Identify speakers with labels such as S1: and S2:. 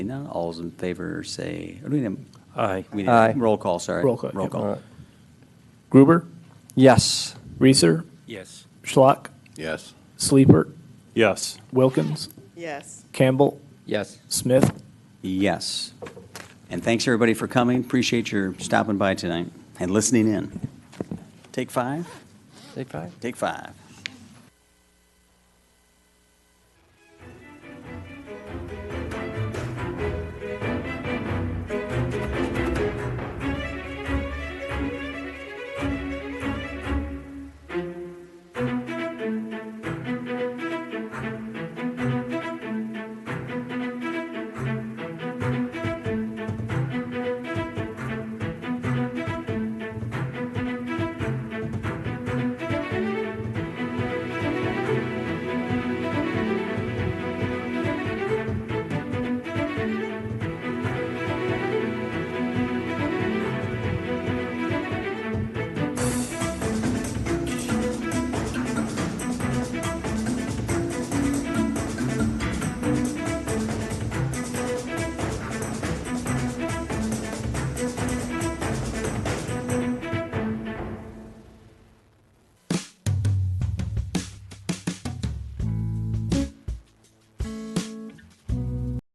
S1: none, all's in favor, say, or do we need a-
S2: Aye.
S1: we need a
S3: Aye.
S1: roll call, sorry.
S3: Roll call.
S1: Roll call.
S3: Gruber,
S4: Yes.
S3: Reeser,
S2: Yes.
S3: Schlock,
S5: Yes.
S3: Sleeper,
S2: Yes.
S3: Wilkins,
S6: Yes.
S3: Campbell,
S4: Yes.
S3: Smith.
S1: Yes. And thanks, everybody, for coming. Appreciate your stopping by tonight and listening in. Take five?
S4: Take five.
S1: Take five.